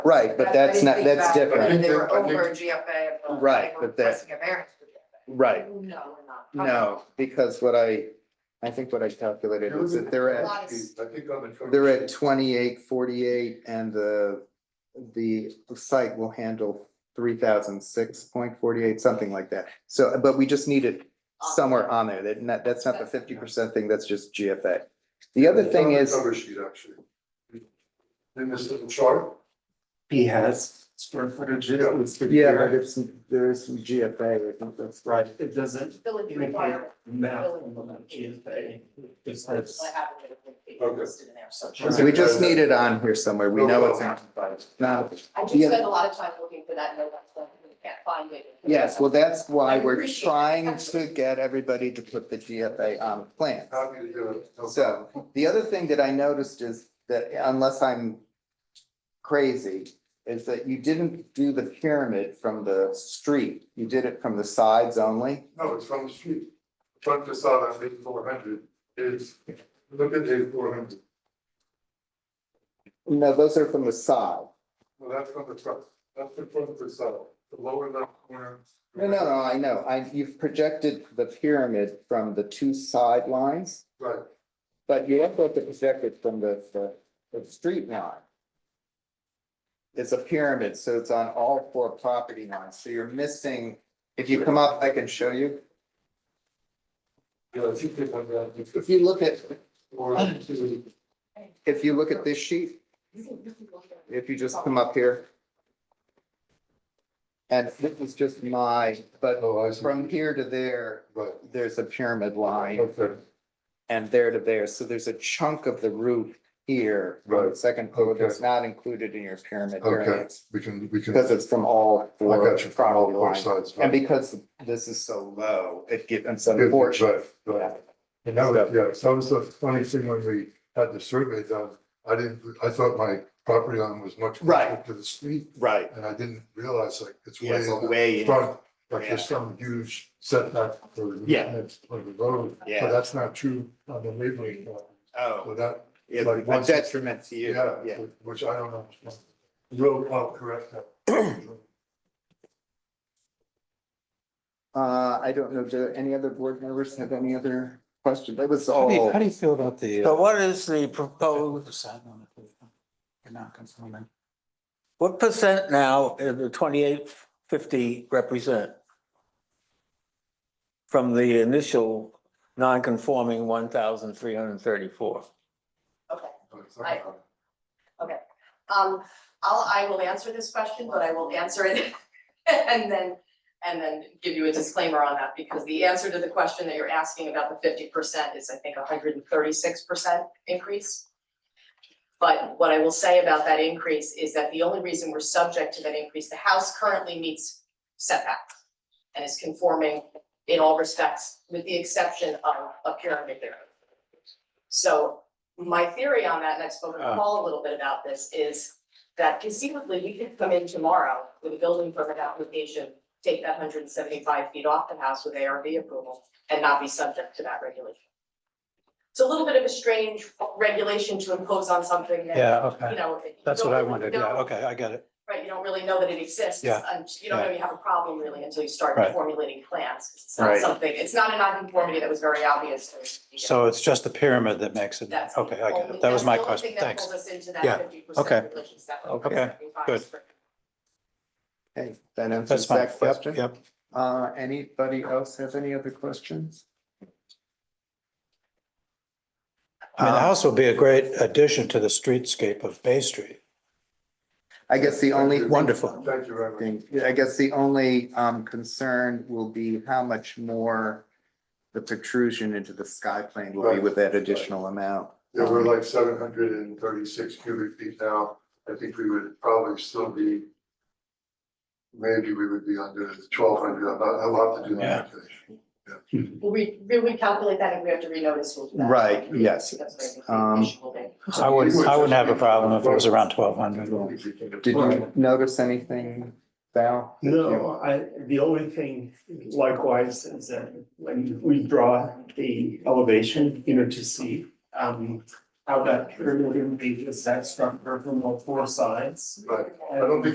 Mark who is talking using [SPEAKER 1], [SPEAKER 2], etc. [SPEAKER 1] Right, but that's not, that's
[SPEAKER 2] I
[SPEAKER 1] different.
[SPEAKER 2] didn't
[SPEAKER 3] They were
[SPEAKER 2] think- I didn't-
[SPEAKER 3] over GFA. but uh, they
[SPEAKER 1] Right,
[SPEAKER 3] were
[SPEAKER 1] but that-
[SPEAKER 3] pressing a variance for GFA.
[SPEAKER 1] Right,
[SPEAKER 3] No, we're not. Okay.
[SPEAKER 1] no, because what I, I think what I calculated is that they're at,
[SPEAKER 2] I think on the.
[SPEAKER 1] they're at twenty-eight, forty-eight, and the, the site will handle three thousand six point forty-eight, something like that. So, but we just need it somewhere on there, that, not- that's not the fifty percent thing, that's just GFA. The other
[SPEAKER 2] It's
[SPEAKER 1] thing
[SPEAKER 2] on the
[SPEAKER 1] is,
[SPEAKER 2] Cover sheet, actually. In this little chart,
[SPEAKER 4] He has square footage. it was pretty
[SPEAKER 1] yeah,
[SPEAKER 4] clear.
[SPEAKER 1] but it's, there is some GFA, I think that's right.
[SPEAKER 4] Right, it doesn't
[SPEAKER 3] Building
[SPEAKER 4] indicate
[SPEAKER 3] requirement.
[SPEAKER 4] math on GFA. Just has.
[SPEAKER 3] I have it listed
[SPEAKER 2] Okay.
[SPEAKER 3] in there, so.
[SPEAKER 1] So we just need it on here somewhere, we know it's not, not,
[SPEAKER 3] I do
[SPEAKER 1] Yeah.
[SPEAKER 3] spend a lot of time looking for that, note, but we can't find it.
[SPEAKER 1] Yes, well, that's why
[SPEAKER 3] I
[SPEAKER 1] we're
[SPEAKER 3] appreciate it.
[SPEAKER 1] trying to get everybody to put the GFA on the plan.
[SPEAKER 2] happy to do it. no
[SPEAKER 1] So the other thing that I noticed is that unless I'm crazy, is that you didn't do the pyramid from the street. You did it from the sides only.
[SPEAKER 2] problem. No, it's from the street. Front facade on eight four hundred is, look at eight four hundred,
[SPEAKER 1] No, those are from the side.
[SPEAKER 2] well, that's from the front, that's the front facade, the lower left corner.
[SPEAKER 1] No, no, no, I know. I, you've projected the pyramid from the two sidelines,
[SPEAKER 2] Right,
[SPEAKER 1] but you also have to project it from the, the, the street line. It's a pyramid, so it's on all four property lines. So you're missing, if you come up, I can show you.
[SPEAKER 2] yeah, I think they have that.
[SPEAKER 1] If you look at,
[SPEAKER 2] Or to,
[SPEAKER 1] if you look at this sheet,
[SPEAKER 3] You can- you can look at it.
[SPEAKER 1] if you just come up here. And this is just my, but
[SPEAKER 2] oh, I see,
[SPEAKER 1] from here to there,
[SPEAKER 2] right.
[SPEAKER 1] there's a pyramid line
[SPEAKER 2] Okay,
[SPEAKER 1] and there to there. So there's a chunk of the roof here. on the
[SPEAKER 2] Right.
[SPEAKER 1] Second floor that's
[SPEAKER 2] Okay.
[SPEAKER 1] not included in your pyramid
[SPEAKER 2] Okay.
[SPEAKER 1] variance
[SPEAKER 2] we can, we can.
[SPEAKER 1] because it's from all
[SPEAKER 2] I got
[SPEAKER 1] four
[SPEAKER 2] you from all
[SPEAKER 1] property
[SPEAKER 2] four
[SPEAKER 1] lines.
[SPEAKER 2] sides.
[SPEAKER 1] And because this is so low, it gives, it's
[SPEAKER 2] Good,
[SPEAKER 1] unfortunate.
[SPEAKER 2] Right, right. And that was, yeah, so that was the funny thing when we had the survey done, I didn't, I thought my property line was much closer
[SPEAKER 1] Right.
[SPEAKER 2] to the street,
[SPEAKER 1] Right.
[SPEAKER 2] and I didn't realize like it's way
[SPEAKER 1] Yes,
[SPEAKER 2] in
[SPEAKER 1] way
[SPEAKER 2] the
[SPEAKER 1] in.
[SPEAKER 2] front, like
[SPEAKER 1] Yeah.
[SPEAKER 2] there's some huge setback for the
[SPEAKER 1] Yeah.
[SPEAKER 2] maintenance of the road.
[SPEAKER 1] Yeah.
[SPEAKER 2] But that's not true on the neighboring, lot. so
[SPEAKER 1] Oh,
[SPEAKER 2] that,
[SPEAKER 1] it's
[SPEAKER 2] like
[SPEAKER 1] a
[SPEAKER 2] once-
[SPEAKER 1] detriment to you.
[SPEAKER 2] yeah, which- which I don't know. Real well, correct. that.
[SPEAKER 1] Uh, I don't know, do any other board members have any other questions? That was
[SPEAKER 5] How do you,
[SPEAKER 1] all.
[SPEAKER 5] how do you feel about the?
[SPEAKER 6] So what is the proposed,
[SPEAKER 5] You're not conforming.
[SPEAKER 6] what percent now is the twenty-eight fifty represent? From the initial non-conforming one thousand three hundred and thirty-four?
[SPEAKER 3] Okay.
[SPEAKER 2] It's
[SPEAKER 3] I-
[SPEAKER 2] not-
[SPEAKER 3] Um, I'll, I will answer this question, but I will answer it and then, and then give you a disclaimer on that, because the answer to the question that you're asking about the fifty percent is, I think, hundred and thirty-six percent increase. But what I will say about that increase is that the only reason we're subject to that increase, the house currently meets setback and is conforming in all respects, with the exception of a pyramid there. So my theory on that, and I've spoken
[SPEAKER 5] Ah.
[SPEAKER 3] to Paul a little bit about this, is that conceivably, we could come in tomorrow with a building permit application, take that hundred and seventy-five feet off the house with ARV approval and not be subject to that regulation. It's a little bit of a strange regulation to impose on something that,
[SPEAKER 5] Yeah,
[SPEAKER 3] you
[SPEAKER 5] okay.
[SPEAKER 3] know. you
[SPEAKER 5] That's
[SPEAKER 3] don't
[SPEAKER 5] what I
[SPEAKER 3] really
[SPEAKER 5] wanted. Yeah,
[SPEAKER 3] know,
[SPEAKER 5] okay, I get it.
[SPEAKER 3] Right, you don't really know that it exists,
[SPEAKER 5] Yeah,
[SPEAKER 3] and you don't know you have a problem really until you start
[SPEAKER 5] Right.
[SPEAKER 3] formulating plans. 'cause It's not
[SPEAKER 1] Right.
[SPEAKER 3] something, it's not a non-conformity that was very obvious to us.
[SPEAKER 5] So it's just the pyramid that makes it.
[SPEAKER 3] That's. the
[SPEAKER 5] Okay, I get
[SPEAKER 3] only-
[SPEAKER 5] it. That
[SPEAKER 3] that's
[SPEAKER 5] was my
[SPEAKER 3] the only
[SPEAKER 5] question.
[SPEAKER 3] thing that
[SPEAKER 5] Thanks.
[SPEAKER 3] pulled us into that
[SPEAKER 5] Yeah,
[SPEAKER 3] 50%
[SPEAKER 5] okay.
[SPEAKER 3] religious stuff.
[SPEAKER 5] Okay,
[SPEAKER 3] 75
[SPEAKER 5] good.
[SPEAKER 3] spread.
[SPEAKER 1] Hey, that answers
[SPEAKER 5] That's fine.
[SPEAKER 1] that
[SPEAKER 5] Yep,
[SPEAKER 1] question.
[SPEAKER 5] yep.
[SPEAKER 1] Uh, anybody else have any other questions?
[SPEAKER 5] I mean, the
[SPEAKER 1] Uh,
[SPEAKER 5] house will be a great addition to the streetscape of Bay Street.
[SPEAKER 1] I guess the only.
[SPEAKER 5] Wonderful.
[SPEAKER 2] Thank you very much.
[SPEAKER 1] thing, I guess the only, um, concern will be how much more the protrusion into the sky plane will be with that additional amount. Um,
[SPEAKER 2] Yeah, we're like seven hundred and thirty-six cubic feet now. I think we would probably still be. Maybe we would be under twelve hundred. I'm not allowed to do
[SPEAKER 5] Yeah.
[SPEAKER 2] that.
[SPEAKER 3] Will we, will we calculate that if we have to renotice? we'll do that.
[SPEAKER 1] Right, yes.
[SPEAKER 3] That's what I
[SPEAKER 1] Um,
[SPEAKER 3] think the issue will be.
[SPEAKER 5] I wouldn't, I wouldn't have a problem if it was around twelve hundred.
[SPEAKER 1] Did you notice anything, Val?
[SPEAKER 7] No, I, the only thing likewise is that when we draw the elevation, you know, to see, um, how that pyramid would be, is that structure from all four sides.
[SPEAKER 2] but I don't think